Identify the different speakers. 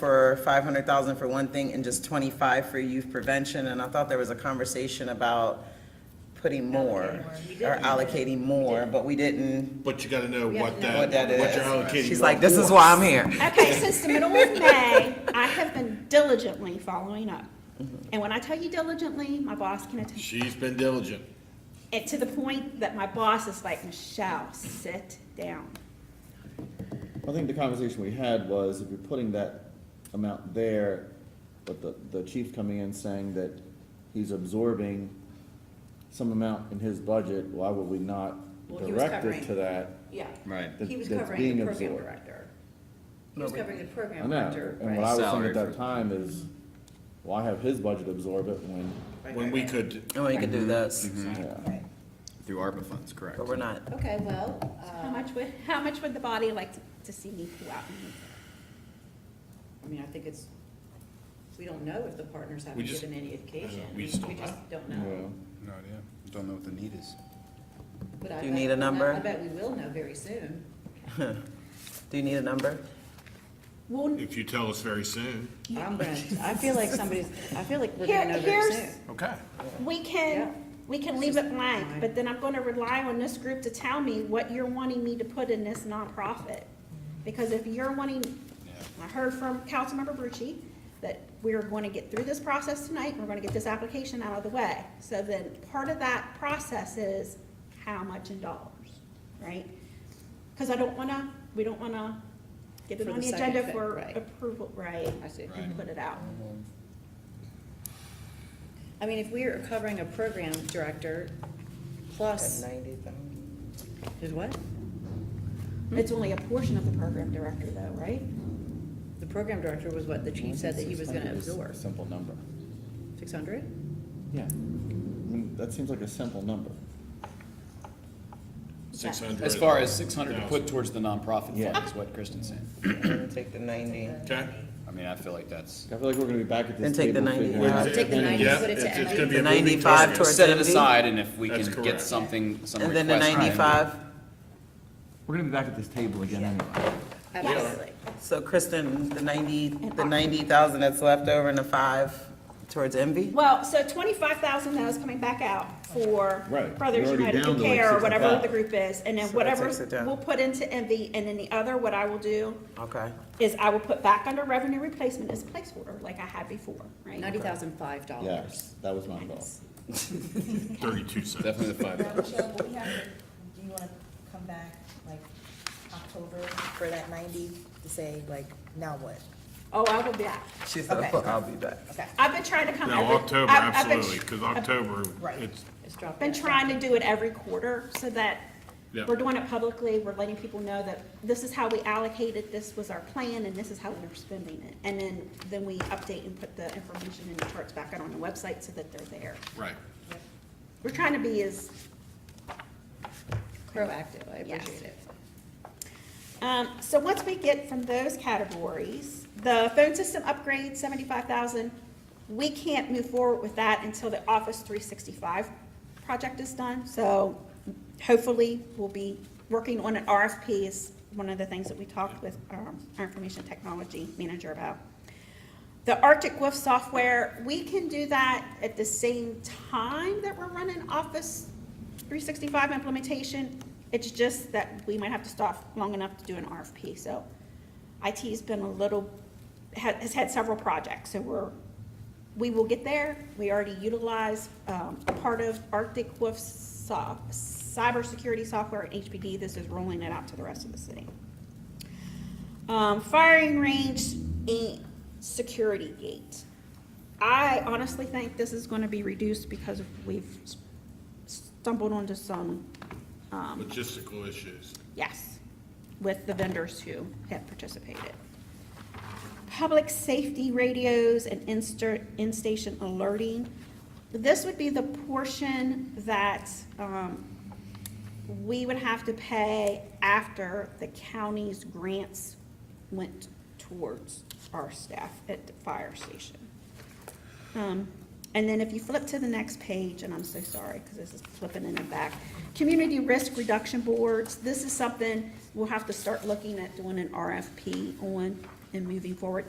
Speaker 1: for five hundred thousand for one thing and just twenty-five for youth prevention, and I thought there was a conversation about putting more or allocating more, but we didn't,
Speaker 2: But you gotta know what that,
Speaker 1: what
Speaker 2: what
Speaker 1: that
Speaker 2: you're
Speaker 1: is.
Speaker 2: allocating.
Speaker 1: She's like, this is why I'm here.
Speaker 3: Okay, since the middle of May, I have been diligently following up.
Speaker 4: Mm-hmm.
Speaker 3: And when I tell you diligently, my boss can attest,
Speaker 2: She's been diligent.
Speaker 3: and to the point that my boss is like, Michelle, sit down.
Speaker 4: I think the conversation we had was if you're putting that amount there, but the, the chief coming in saying that he's absorbing some amount in his budget, why would we not
Speaker 5: Well, he was
Speaker 4: direct it to
Speaker 5: covering-
Speaker 4: that?
Speaker 5: Yeah.
Speaker 6: Right.
Speaker 5: He was
Speaker 4: That's
Speaker 5: covering
Speaker 4: being
Speaker 5: the program
Speaker 4: absorbed.
Speaker 5: director. He was covering the
Speaker 4: I
Speaker 5: program
Speaker 4: know,
Speaker 5: director.
Speaker 4: and what I was thinking
Speaker 6: Salary
Speaker 4: at
Speaker 6: for-
Speaker 4: that time is, why have his budget absorb it when,
Speaker 2: When we could,
Speaker 1: And we could Oh, do this,
Speaker 2: Mm-hmm.
Speaker 4: yeah.
Speaker 6: Through ARPA funds, correct.
Speaker 1: but we're not.
Speaker 5: Okay,
Speaker 1: Oh,
Speaker 5: well,
Speaker 3: How
Speaker 5: uh,
Speaker 3: much would, how much would the body like to- to see me pull out? and move?
Speaker 5: I mean, I think it's, we don't know if the partners
Speaker 2: We
Speaker 5: haven't
Speaker 2: just-
Speaker 5: given any indication.
Speaker 2: we just don't know.
Speaker 5: don't know.
Speaker 7: No idea. Don't know what the need is.
Speaker 5: But I
Speaker 1: Do you
Speaker 5: bet
Speaker 1: need a
Speaker 5: we'll know-
Speaker 1: number?
Speaker 5: I bet we will know very soon.
Speaker 1: Do you need a number?
Speaker 3: Well,
Speaker 2: if you tell us very soon.
Speaker 5: I'm gonna, I feel like somebody's, I feel like we're
Speaker 3: Here-
Speaker 5: gonna know very
Speaker 3: here's-
Speaker 5: soon.
Speaker 2: Okay.
Speaker 3: we
Speaker 5: Yeah.
Speaker 3: can, we can leave it blank,
Speaker 5: mine.
Speaker 3: but then I'm gonna rely on this group to tell me what you're wanting me to put in this nonprofit. Because if you're wanting, I heard from Councilmember Brucci that we're gonna get through this process tonight, and we're gonna get this application out of the way. So then, part of that process is how much in dollars, right? Because I don't wanna, we don't wanna get it
Speaker 5: For
Speaker 3: on
Speaker 5: the
Speaker 3: the
Speaker 5: second
Speaker 3: agenda
Speaker 5: thing,
Speaker 3: for
Speaker 5: right.
Speaker 3: approval, right?
Speaker 5: I see.
Speaker 3: And put it out.
Speaker 5: I mean, if we are covering a program director plus,
Speaker 1: Ninety thousand.
Speaker 5: did what?
Speaker 3: It's only a portion of the program director though, right?
Speaker 5: The program director was what the chief said that he was gonna
Speaker 4: 600 is
Speaker 5: absorb.
Speaker 4: a Simple number,
Speaker 5: Six hundred?
Speaker 4: yeah. I mean, that seems like a simple number,
Speaker 2: Six hundred.
Speaker 6: As far as six hundred to put towards the nonprofit
Speaker 4: Yeah.
Speaker 6: fund is what Kristen's saying.
Speaker 1: Take the ninety.
Speaker 2: Okay.
Speaker 6: I mean, I feel like that's,
Speaker 4: I feel like we're gonna be back at
Speaker 1: Then
Speaker 4: this
Speaker 1: take the
Speaker 4: table figuring
Speaker 1: 95.
Speaker 4: out.
Speaker 5: Uh, Take the ninety,
Speaker 2: Yeah,
Speaker 5: put it to
Speaker 2: it's, it's
Speaker 5: Emily.
Speaker 2: gonna be a moving
Speaker 1: 95
Speaker 2: target.
Speaker 1: towards-
Speaker 6: set it
Speaker 1: 70?
Speaker 6: aside and if we
Speaker 2: That's
Speaker 6: can
Speaker 2: correct.
Speaker 6: get something, some
Speaker 1: And then
Speaker 6: request.
Speaker 1: the
Speaker 6: from-
Speaker 1: ninety-five,
Speaker 4: We're gonna be back at this table again anyway.
Speaker 5: Absolutely.
Speaker 1: so Kristen, the ninety, the ninety thousand that's left over and the five towards envy?
Speaker 3: Well, so twenty-five thousand though is coming back out for
Speaker 4: Right.
Speaker 3: Brothers
Speaker 4: We're
Speaker 3: United
Speaker 4: already down
Speaker 3: Good
Speaker 4: to like
Speaker 3: Care or whatever
Speaker 4: 65.
Speaker 3: the group is, and then
Speaker 1: So that
Speaker 3: whatever
Speaker 1: takes it down.
Speaker 3: we'll put into envy, and then the other, what I will do
Speaker 1: Okay,
Speaker 3: is I will put back under revenue replacement as placeholder, like I had before, right?
Speaker 5: Ninety thousand five dollars.
Speaker 4: Yes, that was my goal.
Speaker 2: Thirty-two cents.
Speaker 6: Definitely the five.
Speaker 8: Now, Michelle, will we have to, do you want to come back, like, October for that ninety, to say, like, now what?
Speaker 3: Oh, I will be back.
Speaker 1: she said,
Speaker 8: Okay.
Speaker 1: I'll be back.
Speaker 8: Okay.
Speaker 3: I've been trying to come.
Speaker 2: No,
Speaker 3: every-
Speaker 2: October,
Speaker 3: I've- I've been-
Speaker 2: absolutely, because October,
Speaker 8: Right.
Speaker 2: it's,
Speaker 5: It's dropped.
Speaker 3: I've Been trying to do it every quarter, so that
Speaker 2: Yeah.
Speaker 3: we're doing it publicly, we're letting people know that this is how we allocated, this was our plan, and this is how we're spending it. And then, then we update and put the information and the charts back out on the website so that they're there.
Speaker 2: right.
Speaker 3: We're trying to be as,
Speaker 5: Proactive, I
Speaker 3: Yes.
Speaker 5: appreciate it.
Speaker 3: um, so once we get from those categories, the phone system upgrade, seventy-five thousand, we can't move forward with that until the Office three sixty-five project is done, so hopefully we'll be working on an RFP is one of the things that we talked with, um, our information technology manager about. The Arctic Wolf software, we can do that at the same time that we're running Office 365 implementation. It's just that we might have to stop long enough to do an RFP, so IT's been a little, ha- has had several projects, so we're, we will get there. We already utilize um, a part of Arctic Wolf's so- cybersecurity software at HPD. This is rolling it out to the rest of the city. Um, firing range and security gate. I honestly think this is gonna be reduced because we've stumbled onto some, um,
Speaker 2: Logistical issues.
Speaker 3: yes, with the vendors who have participated. Public safety radios and insta, in-station alerting. This would be the portion that, um, we would have to pay after the county's grants went towards our staff at the fire station. Um, And then if you flip to the next page, and I'm so sorry, because this is flipping in the back, Community Risk Reduction Boards, this is something we'll have to start looking at doing an RFP on and moving forward.